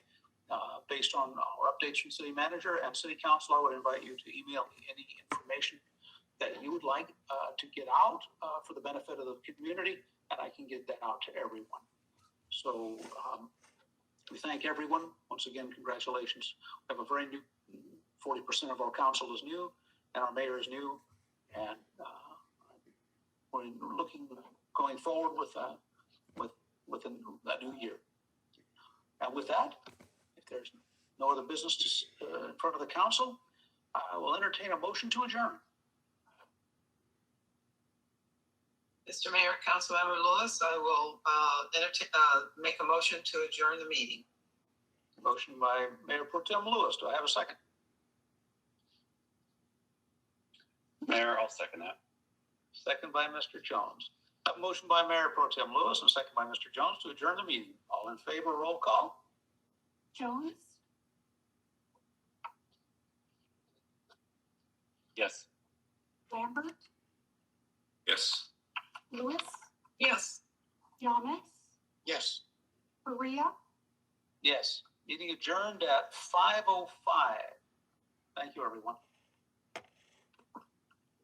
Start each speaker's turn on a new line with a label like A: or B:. A: uh, based on our updates from city manager and city council, I would invite you to email me any information that you would like uh, to get out uh, for the benefit of the community, and I can get that out to everyone. So um, we thank everyone. Once again, congratulations. We have a very new, 40% of our council is new, and our mayor is new. And uh, we're looking, going forward with, uh, with, with a a new year. And with that, if there's no other business to, s- uh, in front of the council, I will entertain a motion to adjourn.
B: Mr. Mayor, Councilmember Lewis, I will uh, entertain, uh, make a motion to adjourn the meeting.
A: Motion by Mayor Pro Tem Lewis. Do I have a second?
C: Mayor, I'll second that.
A: Second by Mr. Jones. A motion by Mayor Pro Tem Lewis and second by Mr. Jones to adjourn the meeting. All in favor, roll call.
D: Jones,
C: Yes.
D: Lambert,
C: Yes.
D: Lewis,
B: Yes.
D: Yamas,
A: Yes.
D: Maria.
A: Yes. Meeting adjourned at 5:05. Thank you, everyone.